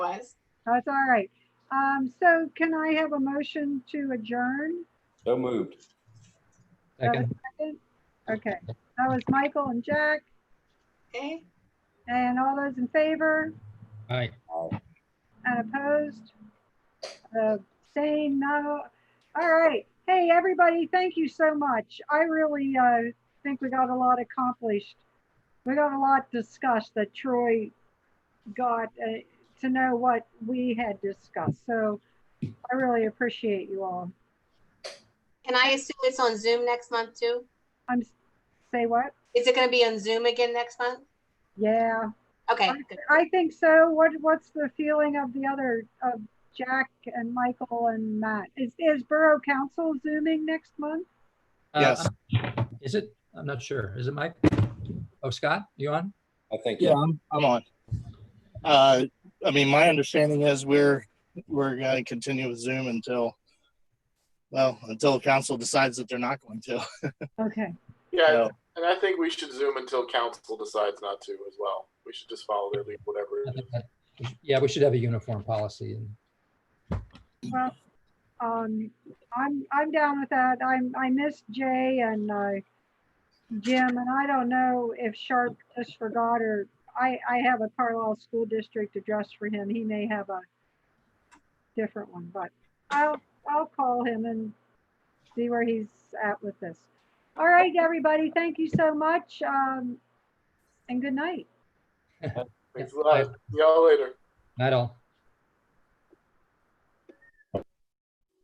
apologize. That's all right. Um, so can I have a motion to adjourn? So moved. That was Second. second? Okay, that was Michael and Jack, Okay, and all those in favor Aye. and opposed? Uh, Saying no. All right. Hey, everybody, thank you so much. I really, uh, think we got a lot accomplished. We got a lot discussed that Troy got, uh, to know what we had discussed. So I really appreciate you all. can I assume it's on Zoom next month too? I'm, say what? Is it gonna be on Zoom again next month? Yeah, Okay, good. I think so. What, what's the feeling of the other, of Jack and Michael and Matt? Is, is Borough Council zooming next month? Uh, Yes. I'm- Is it? I'm not sure. Is it Mike? Oh, Scott, you on? I think. Yeah, I'm, I'm on. Uh, I mean, my understanding is we're, we're gonna continue with Zoom until, well, until the council decides that they're not going to. Okay, Yeah, No. and I think we should zoom until council decides not to as well. We should just follow their lead, whatever. I it is. think that- Yeah, we should have a uniform policy. and well, um, I'm, I'm down with that. I'm, I missed Jay and, uh, Jim, and I don't know if Sharp just forgot or, I, I have a Carlisle School District address for him. He may have a different one, but I'll, I'll call him and see where he's at with this. All right, everybody, thank you so much, um, and good night. Thanks a lot. See y'all later. Not all.